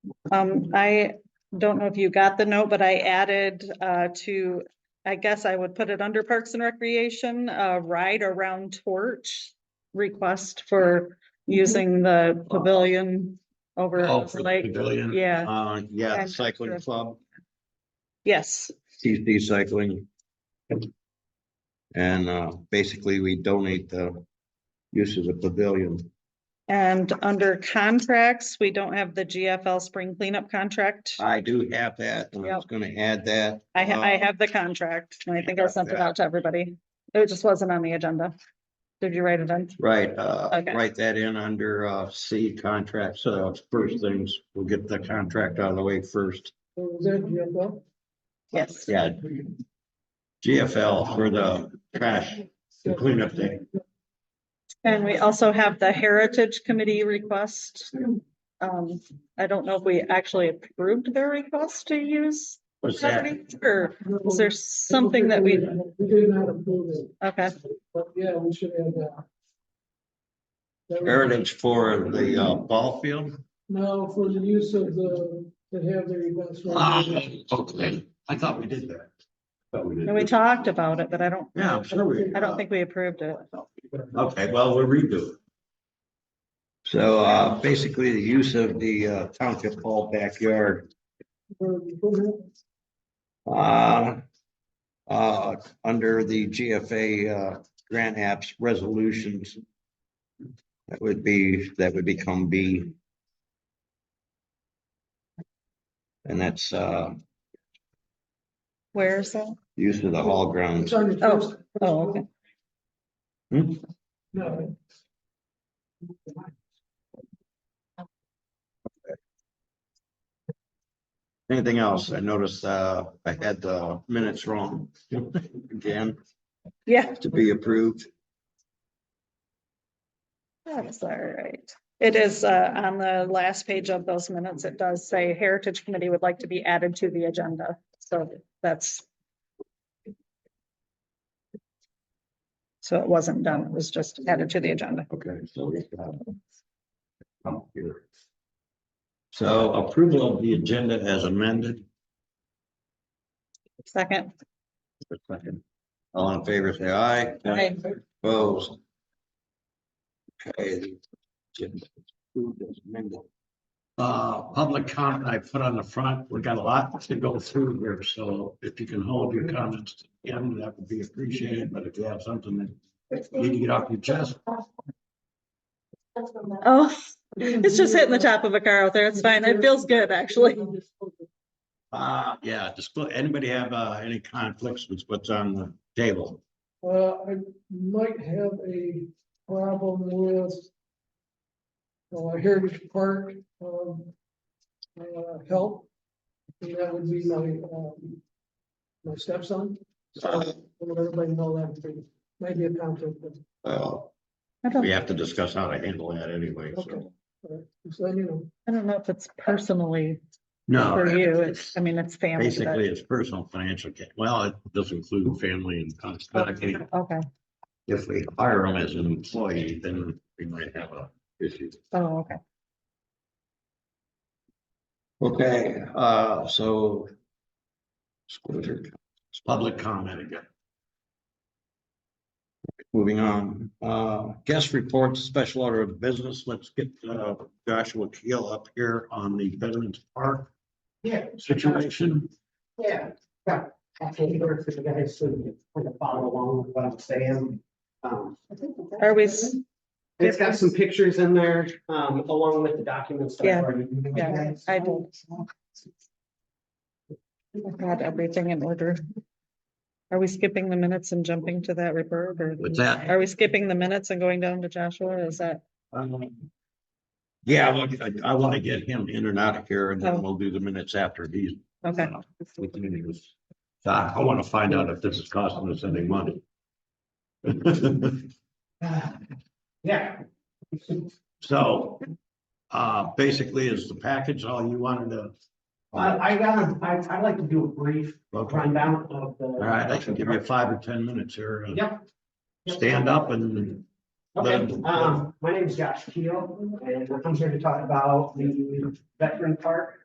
Um, I don't know if you got the note, but I added, uh, to, I guess I would put it under Parks and Recreation, uh, ride around torch request for using the pavilion over Oh, at for the the lake. pavilion. Yeah, Uh, yeah, And- cycling club, yes, TC cycling. And, uh, basically we donate the use of the pavilion. and under contracts, we don't have the GFL spring cleanup contract. I do have that, and I was gonna add that. I ha- I uh, have the contract, and I think I sent it out to everybody. It just wasn't on the agenda. Did you write it in? Right, uh, Okay. write that in under, uh, C contracts, uh, first things, we'll get the contract out of the way first. Yes. Yeah. GFL for the trash cleanup day. And we also have the Heritage Committee request. Um, I don't know if we actually approved their request to use What's that? property, or is there something that we, We did not approve it, okay, but yeah, we should add that. That was- Heritage for the, uh, ball field? No, for the use of the, to have their events. Ah, okay, I thought we did that. Thought we did. and we talked about it, but I don't, Yeah, I'm sure we. I don't think we approved it. Okay, well, we'll redo it. So, uh, basically the use of the uh, township hall backyard, uh, uh, under the GFA, uh, grant apps resolutions. That would be, that would become B. And that's, uh, Where is that? use of the hall grounds. Oh, oh, okay. Hmm? No. Anything else? I noticed, uh, I had the minutes wrong again Yeah, to be approved. that's all right. It is, uh, on the last page of those minutes, it does say Heritage Committee would like to be added to the agenda, so that's. So it wasn't done, it was just added to the agenda. Okay, so we have. oh, here. So approval of the agenda as amended. Second, Just a second. All in favor, say aye. Aye. Opposed. Okay. the agenda is approved as amended. Uh, public comment I put on the front. We've got a lot to go through here, so if you can hold your comments to the end, that would be appreciated, but if you have something that you need to get off your chest. oh, it's just hitting the top of a car out there, it's fine, it feels good, actually. Uh, yeah, disclose, anybody have, uh, any conflicts with what's on the table? Uh, I might have a problem with. Uh, Heritage Park, um, uh, help. And that would be my, um, my stepson. So, Uh-huh. I'll let everybody know that, maybe a conflict, but, Well, I we don't, have to discuss how to handle that anyway, okay. so. All right, So, uh, you know. I don't know if it's personally No. for you, it's- it's, I mean, it's family, Basically, it's personal financial, ca- well, it does include family and custody. but, okay, If we hire them as an employee, then we might have a issue. oh, okay. Okay, uh, so. disclosure, It's public comment again. Moving on, uh, guest reports, special order of business, let's get uh, Joshua Keel up here on the Veterans Park Yeah, situation. yeah, yeah. Actually, for the guys to kind of follow along with what I'm saying. Um, Are we, s- It's got some pictures in there, um, along with the documents. that I've Yeah, already given you yeah, guys. I don't. Oh I've got everything in order. Are we skipping the minutes and jumping to that report or? What's that? Are we skipping the minutes and going down to Joshua? Is that, Um, Yeah, I want- I- I want to get him in and out of here and then we'll do the minutes after he's. okay, uh, with the meetings. So I want to find out if this is costing us any money. Yeah, So, uh, basically is the package all you wanted to? I, I gotta, I, I'd like to do a brief Okay. rundown of the. All right, I can give you five or ten minutes here. uh, Yep. Yep. Stand up and Okay, Then- um, my name is Josh Keel, and I'm here to talk about the veteran park